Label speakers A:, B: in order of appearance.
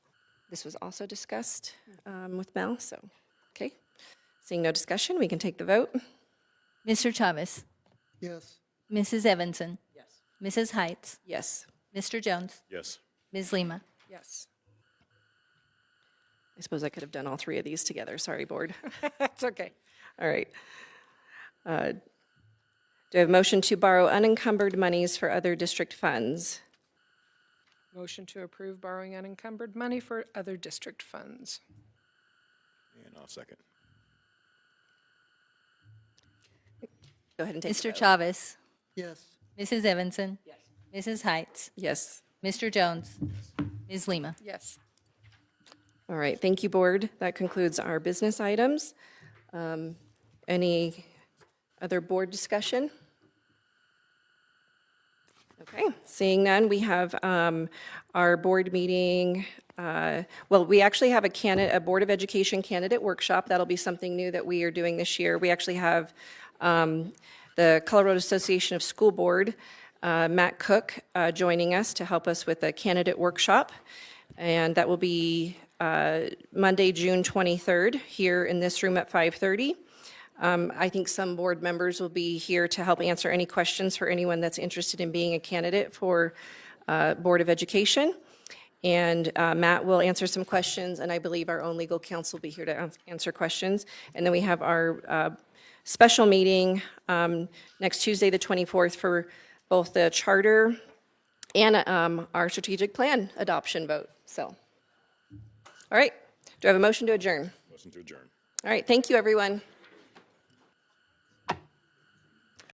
A: This was also discussed um, with Mel, so, okay. Seeing no discussion, we can take the vote.
B: Mr. Thomas,
C: Yes.
B: Mrs. Evanson,
D: Yes.
B: Mrs. Heights,
A: Yes.
B: Mr. Jones,
E: Yes.
B: Ms. Lima.
A: Yes. I suppose I could have done all three of these together. Sorry, board.
D: That's okay.
A: All right. Uh, Do I have a motion to borrow unencumbered monies for other district funds?
D: Motion to approve borrowing unencumbered money for other district funds.
E: And I'll second.
A: Go ahead and take the
B: Mr.
A: vote.
B: Chavez,
C: Yes.
B: Mrs. Evanson, Mrs. Heights,
A: Yes.
B: Mr. Jones, Ms. Lima.
D: Yes.
A: All right, thank you, board. That concludes our business items. Um, Any other board discussion? Okay, seeing none, we have um, our board meeting, uh, well, we actually have a candidate, a Board of Education candidate workshop. That'll be something new that we are doing this year. We actually have um, the Colorado Association of School Board, uh, Matt Cook, uh, joining us to help us with a candidate workshop. And that will be uh, Monday, June 23rd, here in this room at 5:30. Um, I think some board members will be here to help answer any questions for anyone that's interested in being a candidate for uh, Board of Education. And uh, Matt will answer some questions, and I believe our own legal counsel will be here to ans- answer questions. And then we have our uh, special meeting um, next Tuesday, the 24th, for both the charter and um, our strategic plan adoption vote, so. All right, do I have a motion to adjourn?
E: Motion to adjourn.
A: All right, thank you, everyone.